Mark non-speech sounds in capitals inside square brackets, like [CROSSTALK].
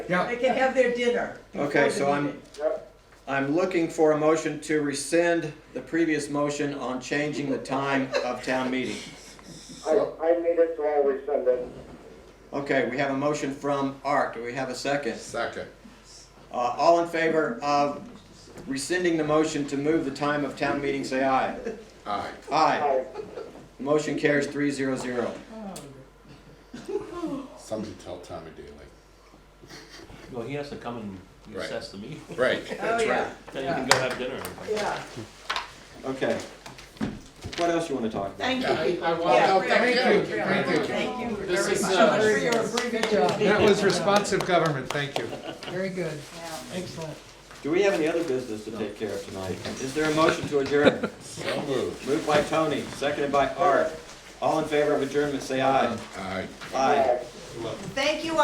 Yeah. They can have their dinner. before Okay, the so I'm- meeting. Yep, I'm looking for a motion to rescind the previous motion on changing the time of town meeting. I, I made it to all rescind it. Okay, we have a motion from Art. Do we have a second? Second. Uh, all in favor of rescinding the motion to move the time of town meeting, say aye. Aye. Aye. Aye. Motion carries three zero zero. Somebody tell Tommy Daly. Well, he has to come and Right. assess the meeting. Right. Oh, yeah, [LAUGHS] Then you can go have dinner. yeah, Okay. What else you wanna talk about? thank I, you. I Yeah, want, Well, thank really, you, really, thank you. Thank you This very is, much uh, for your abbreviated Good meeting. job. That was responsive government, thank you. very good, Yeah. excellent. Do we have any other business to take care of tonight? Is there a motion to adjourn? So moved. Moved by Tony, seconded by Art. All in favor of adjournment, say aye. Aye. Aye. Aye. Thank you